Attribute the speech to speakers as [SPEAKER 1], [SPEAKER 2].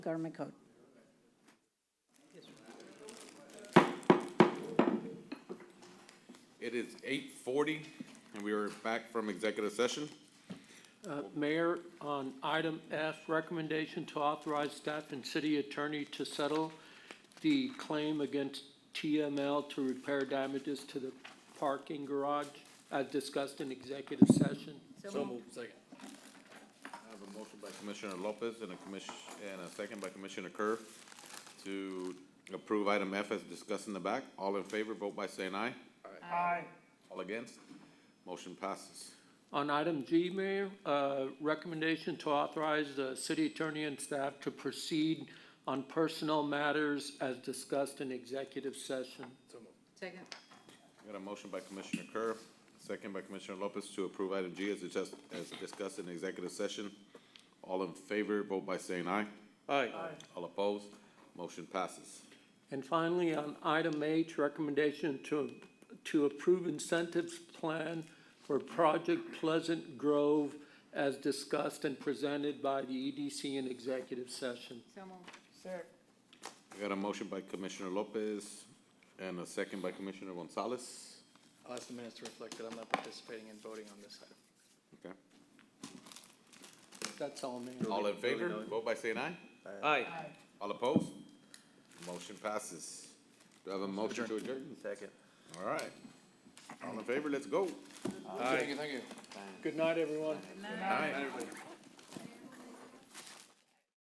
[SPEAKER 1] Government Code.
[SPEAKER 2] It is eight forty, and we are back from executive session.
[SPEAKER 3] Uh, Mayor, on item F, recommendation to authorize staff and city attorney to settle the claim against TML to repair damages to the parking garage as discussed in executive session.
[SPEAKER 2] I have a motion by Commissioner Lopez and a commission, and a second by Commissioner Kerr to approve item F as discussed in the back. All in favor, vote by saying aye. Aye. All against? Motion passes.
[SPEAKER 3] On item G, Mayor, uh, recommendation to authorize the city attorney and staff to proceed on personnel matters as discussed in executive session.
[SPEAKER 4] Second.
[SPEAKER 2] Got a motion by Commissioner Kerr, second by Commissioner Lopez to approve item G as discussed, as discussed in executive session. All in favor, vote by saying aye.
[SPEAKER 3] Aye.
[SPEAKER 2] All opposed? Motion passes.
[SPEAKER 3] And finally, on item H, recommendation to, to approve incentives plan for Project Pleasant Grove as discussed and presented by the EDC in executive session.
[SPEAKER 4] So moved.
[SPEAKER 2] I got a motion by Commissioner Lopez and a second by Commissioner Gonzalez.
[SPEAKER 5] I'll ask the minutes to reflect that I'm not participating in voting on this item.
[SPEAKER 2] Okay.
[SPEAKER 3] That's all, Mayor.
[SPEAKER 2] All in favor, vote by saying aye.
[SPEAKER 3] Aye.
[SPEAKER 2] All opposed? Motion passes. Do I have a motion to adjourn?
[SPEAKER 5] Second.
[SPEAKER 2] All right. All in favor, let's go.
[SPEAKER 5] Thank you, thank you.
[SPEAKER 3] Good night, everyone.
[SPEAKER 2] Aye.